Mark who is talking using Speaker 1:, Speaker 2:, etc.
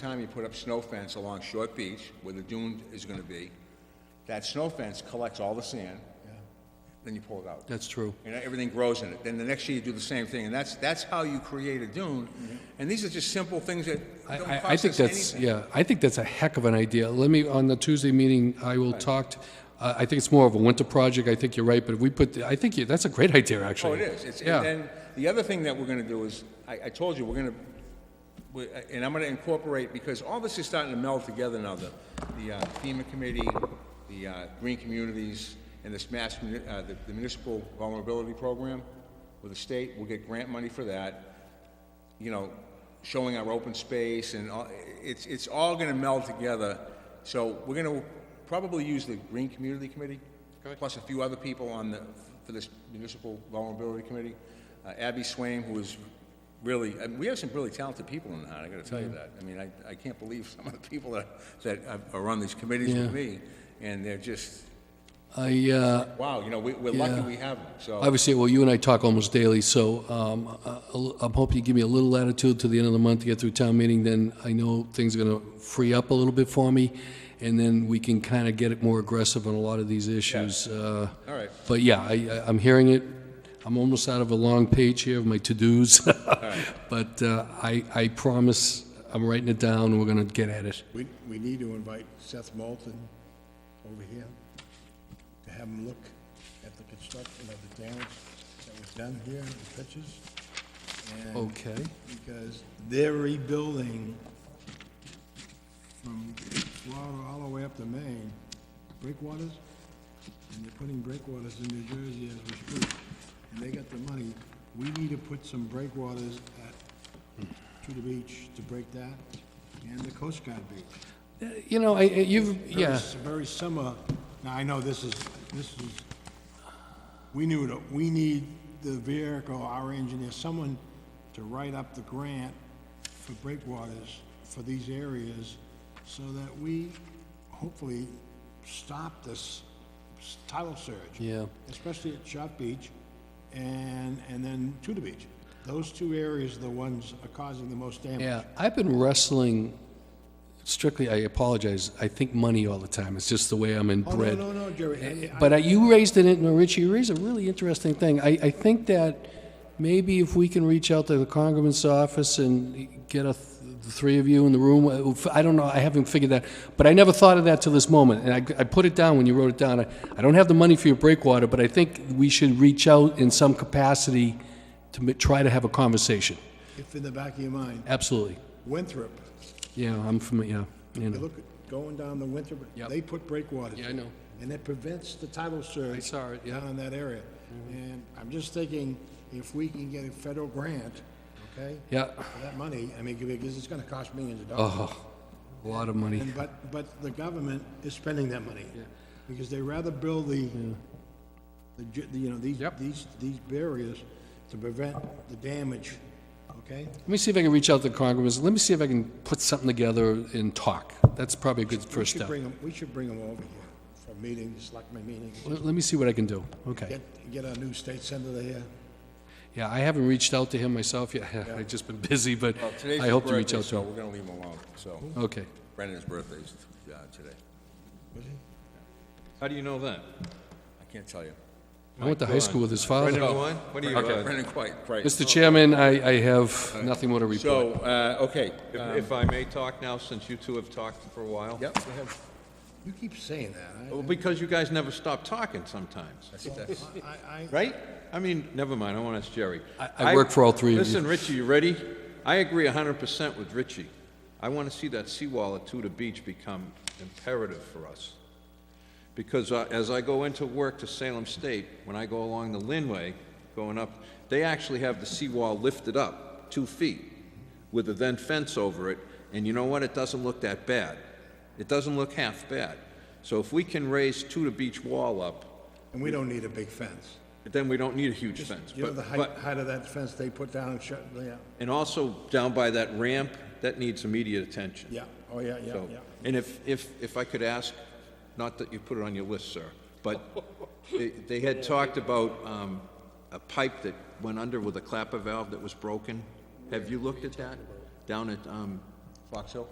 Speaker 1: time you put up snow fence along Short Beach, where the dune is gonna be, that snow fence collects all the sand, then you pull it out.
Speaker 2: That's true.
Speaker 1: And everything grows in it. Then the next year, you do the same thing, and that's, that's how you create a dune. And these are just simple things that
Speaker 2: I-
Speaker 1: don't
Speaker 2: I,
Speaker 1: cost
Speaker 2: I think
Speaker 1: us
Speaker 2: that's,
Speaker 1: anything.
Speaker 2: yeah, I think that's a heck of an idea. Let me, on the Tuesday meeting, I will talk, t- uh, I think it's more of a winter project, I think you're right, but if we put, I think you, that's a great idea,
Speaker 1: Oh,
Speaker 2: actually.
Speaker 1: it is. It's,
Speaker 2: Yeah.
Speaker 1: and then, the other thing that we're gonna do is, I, I told you, we're gonna, we- and I'm gonna incorporate, because all this is starting to meld together now, the, the uh, FEMA committee, the, uh, green communities, and this mass, muni- uh, the the municipal vulnerability program with the state, we'll get grant money for that. you know, showing our open space and all, it's, it's all gonna meld together. So we're gonna probably use the Green Community Committee, plus a few other people on the, for this Municipal Vulnerability Committee. Uh, Abby Swaim, who is really, I mean, we have some really talented people in the town, I gotta tell you that. I mean, I, I can't believe some of the people that, that are on these committees with me, and they're just,
Speaker 2: I, uh,
Speaker 1: wow, you know, we, we're lucky we have them, so.
Speaker 2: Obviously, well, you and I talk almost daily, so um, I- I'll- I'm hoping you give me a little latitude to the end of the month to get through town meeting, then I know things are going to free up a little bit for me, and then we can kind of get it more aggressive on a lot of these issues. uh, All
Speaker 1: All right.
Speaker 2: But yeah, I, I- I'm hearing it. I'm almost out of a long page here of my to-dos. But uh, I, I promise, I'm writing it down, and we're going to get at it.
Speaker 3: We, we need to invite Seth Moulton over here to have him look at the construction of the damage that was done here, the pitches. and-
Speaker 2: Okay.
Speaker 3: Because they're rebuilding from Florida all the way up to Maine, breakwaters, and they're putting breakwaters in New Jersey as we speak. And they got the money. We need to put some breakwaters at, to the beach to break that, and the Coast Guard beach.
Speaker 2: You know, I, I- you've,
Speaker 3: Very-
Speaker 2: yeah,
Speaker 3: Very similar, now, I know this is, this is, we knew, to- we need the vehicle, our engineer, someone to write up the grant for breakwaters for these areas, so that we hopefully stop this s- tidal surge.
Speaker 2: Yeah.
Speaker 3: Especially at Shot Beach and, and then Tudor Beach. Those two areas are the ones are causing the most damage.
Speaker 2: yeah. I've been wrestling strictly, I apologize, I think money all the time. It's just the way I'm
Speaker 3: Oh, no,
Speaker 2: inbred.
Speaker 3: no, no, Jerry, I-
Speaker 2: But uh, you raised it, and Richie, you raised a really interesting thing. I, I think that maybe if we can reach out to the Congressman's office and get a, th- the three of you in the room, uh, f- I don't know, I haven't figured that, but I never thought of that till this moment, and I, I put it down when you wrote it down. I, I don't have the money for your breakwater, but I think we should reach out in some capacity to m- try to have a conversation.
Speaker 3: if in the back of your mind,
Speaker 2: Absolutely.
Speaker 3: Winthrop,
Speaker 2: Yeah, I'm from, yeah, you
Speaker 3: You
Speaker 2: know.
Speaker 3: look, at going down the winter,
Speaker 2: Yep.
Speaker 3: they put breakwaters.
Speaker 2: Yeah, I know.
Speaker 3: And it prevents the tidal surge.
Speaker 2: I saw it, yeah.
Speaker 3: Down in that area. And I'm just thinking, if we can get a federal grant, okay?
Speaker 2: Yeah,
Speaker 3: For that money, I mean, because it's gonna cost millions of dollars.
Speaker 2: oh, a lot of money.
Speaker 3: And but, but the government is spending that money. Because they rather build the, the, ju- the, you know, these,
Speaker 2: Yep.
Speaker 3: these, these barriers to prevent the damage, okay?
Speaker 2: Let me see if I can reach out to Congressman. Let me see if I can put something together and talk. That's probably a good first
Speaker 3: We should
Speaker 2: step.
Speaker 3: bring 'em- we should bring them over here for meetings, like my meetings.
Speaker 2: Let let me see what I can do. Okay.
Speaker 3: Get, get our new state senator here.
Speaker 2: Yeah, I haven't reached out to him myself yet. I've just been busy, but
Speaker 1: Well, today's
Speaker 2: I
Speaker 1: his
Speaker 2: hope to reach
Speaker 1: birthday,
Speaker 2: out to
Speaker 1: so
Speaker 2: him.
Speaker 1: We're gonna leave him alone, so.
Speaker 2: Okay.
Speaker 1: Brendan's birthday is, uh, today.
Speaker 4: How do you know that?
Speaker 1: I can't tell you.
Speaker 2: I went to high
Speaker 4: God.
Speaker 2: school with his father.
Speaker 4: Brendan Gwine? What do you, uh,
Speaker 1: Brendan quite, right.
Speaker 2: Mr. Chairman, I, I have nothing more to report.
Speaker 1: So, uh, okay,
Speaker 4: if if I may talk now, since you two have talked for a while?
Speaker 1: yep,
Speaker 3: You keep saying that.
Speaker 4: Well, Because you guys never stop talking sometimes,
Speaker 3: I, I, I,
Speaker 4: right? I mean, never mind, I want to ask Jerry.
Speaker 2: I- I work for all three of you.
Speaker 4: Listen, Richie, you ready? I agree hundred percent with Richie. I want to see that seawall at Tudor Beach become imperative for us. Because uh, as I go into work to Salem State, when I go along the Linway, going up, they actually have the seawall lifted up two feet with a then fence over it, and you know what? It doesn't look that bad. It doesn't look half bad. So if we can raise Tudor Beach wall up,
Speaker 3: and we don't need a big fence.
Speaker 4: then we don't need a huge fence.
Speaker 3: You know,
Speaker 4: But-
Speaker 3: the
Speaker 4: but-
Speaker 3: height, height of that fence they put down and shut, yeah,
Speaker 4: And also down by that ramp, that needs immediate attention.
Speaker 3: yeah, oh, yeah, yeah,
Speaker 4: So-
Speaker 3: yeah.
Speaker 4: And if, if, if I could ask, not that you put it on your list, sir, but they, they had talked about, um, a pipe that went under with a clapper valve that was broken. Have you looked at that? Down at, um,
Speaker 1: Fox Hill?